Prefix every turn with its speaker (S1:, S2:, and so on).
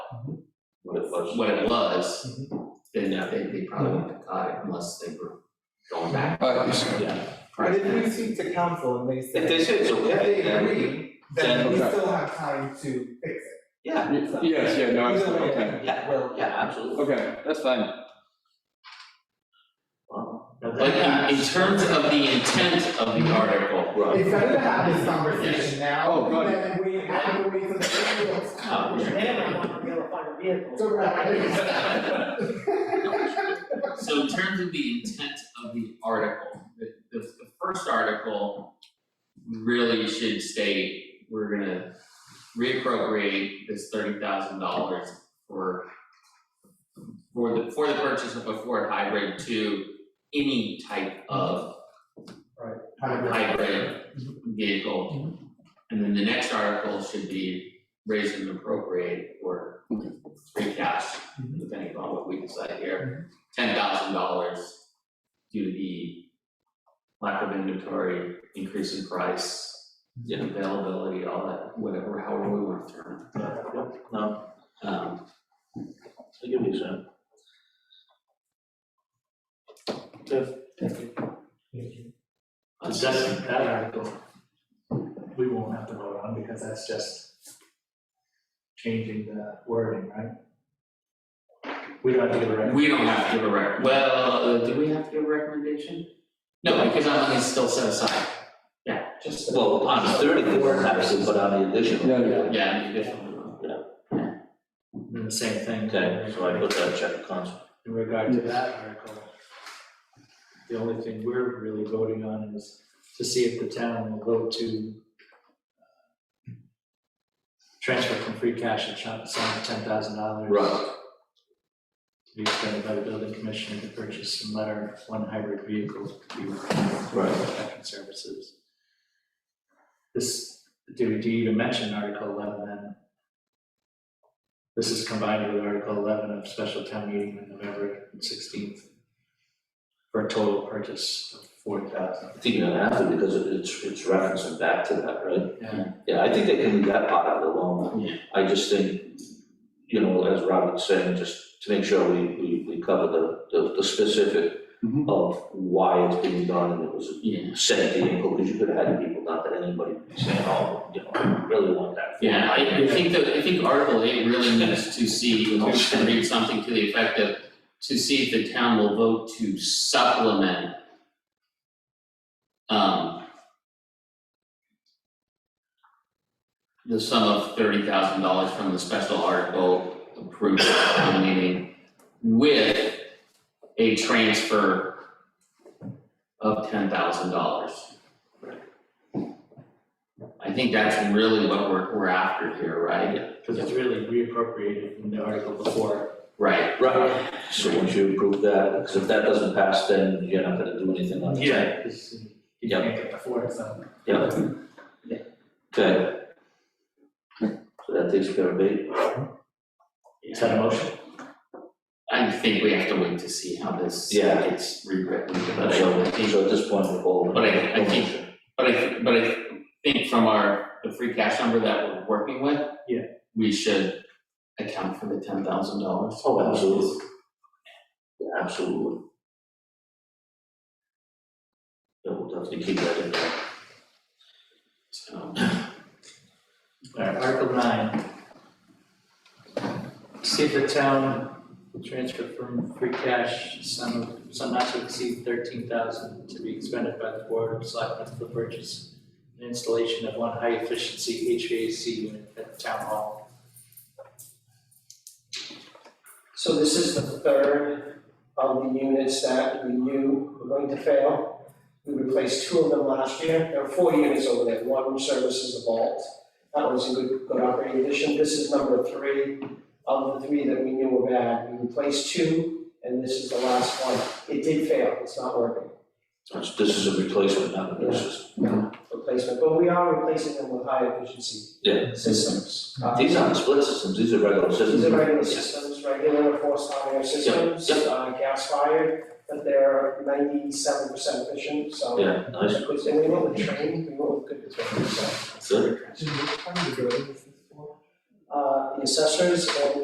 S1: was.
S2: what it was, then I think they probably wouldn't have caught it unless they were going back.
S3: Uh, it's-
S1: Yeah.
S4: But if we speak to council and they
S1: If they
S4: say,
S1: say it's okay,
S4: if they
S1: then we,
S4: agree, then we
S3: Then-
S4: still have time to fix it.
S1: yeah.
S3: Yes, yeah, no, it's,
S4: Either way,
S3: okay,
S1: Yeah,
S4: we're-
S1: Yeah, absolutely.
S3: okay, that's fine.
S1: Well,
S2: But in, in terms of the intent of the article,
S1: Right.
S4: It's better to have this conversation now,
S3: Oh, God.
S4: than we have to wait for the ambulance to come.
S2: Oh,
S5: Then I want to be able to find a vehicle.
S4: So, right.
S2: So in terms of the intent of the article, the, the, the first article really should state, we're gonna reappropriate this thirty thousand dollars for for the, for the purchase of a Ford hybrid to any type of hybrid vehicle. And then the next article should be raise and appropriate or free cash, depending on what we decide here. Ten thousand dollars due to the lack of inventory, increase in price, availability, all that, whatever, however we want to term
S1: No,
S2: it. Um,
S1: I give you some.
S5: Because that's, that article, we won't have to vote on because that's just changing the wording, right? We don't have to give a recommendation.
S2: Uh, We don't have to give a rec, well, uh, do we have to give a recommendation? No, because that money's still set aside,
S5: Just.
S1: Well, on the thirty, they were actually put on the additional.
S3: Yeah, yeah.
S2: yeah, the additional.
S5: And the same thing.
S1: Okay, so I put that check of conscience.
S5: In regard to
S3: Yes.
S5: that article, the only thing we're really voting on is to see if the town will vote to uh, transfer from free cash a chunk, sum of ten thousand dollars.
S1: Right.
S5: To be spent by the building commissioner to purchase and letter one hybrid vehicle to be.
S1: Right.
S5: Protection services. This, do we, do you even mention Article eleven then? This is combined with Article eleven of special town meeting on November sixteenth. For a total purchase of forty thousand.
S1: I think you're gonna have to because it- it's, it's referencing back to that, right?
S5: Yeah.
S1: Yeah, I think they can leave that part out alone.
S2: Yeah.
S1: I just think, you know, as Robert's saying, just to make sure we, we, we cover the, the, the specific
S2: Mm-hmm.
S3: Mhm.
S1: of why it's being done and it was
S2: Yeah,
S1: a set vehicle, because you could have had people, not that anybody would be saying, oh, you know, I really want that.
S2: Yeah, I, I think that, I think Article eight really needs to see, and I'll just read something to the effect of, to see if the town will vote to supplement um the sum of thirty thousand dollars from the special article approved at town meeting with a transfer of ten thousand dollars. I think that's really what we're, we're after here, right?
S5: Because it's really reappropriated in the article before.
S2: Right,
S1: Right, so once you approve that, because if that doesn't pass, then you're not gonna do anything on it.
S5: Because You can't get the fourth, so.
S1: Yeah. Okay. So that takes care of eight.
S5: Is that a motion?
S2: I think we have to wait to see how this
S1: Yeah.
S2: gets rewritten, but
S1: So,
S2: I think,
S1: so at this point, we're all.
S2: But I- I think- but I, but I think from our, the free cash number that we're working with.
S5: Yeah.
S2: We should account for the ten thousand dollars.
S1: Oh, absolutely. Yeah, absolutely. Yeah, we'll definitely keep that in there.
S2: So,
S5: All right, Article nine. See if the town will transfer from free cash sum of, sum not to exceed thirteen thousand to be expended by the board of selectmen for the purchase and installation of one high efficiency HVAC unit at the town hall.
S6: So this is the third of the units that we knew were going to fail. We replaced two of them last year. There were four units over there. One services a vault. That was a good, good operating addition. This is number three of the three that we knew were bad. We replaced two, and this is the last one. It did fail. It's not working,
S1: That's- This is a replacement, not a basis.
S6: replacement. But we are replacing them with high efficiency
S1: Yeah.
S6: systems. Uh,
S1: These aren't split systems, these are regular systems.
S6: These are regular systems, regular forced hot air systems,
S1: yep.
S6: uh, gas fired, but they're ninety-seven percent efficient, so.
S1: Yeah, nice,
S6: Of course, and we went with train, we went with good train, so,
S1: good.
S4: Should we- how many buildings is this for?
S6: uh, the assessors and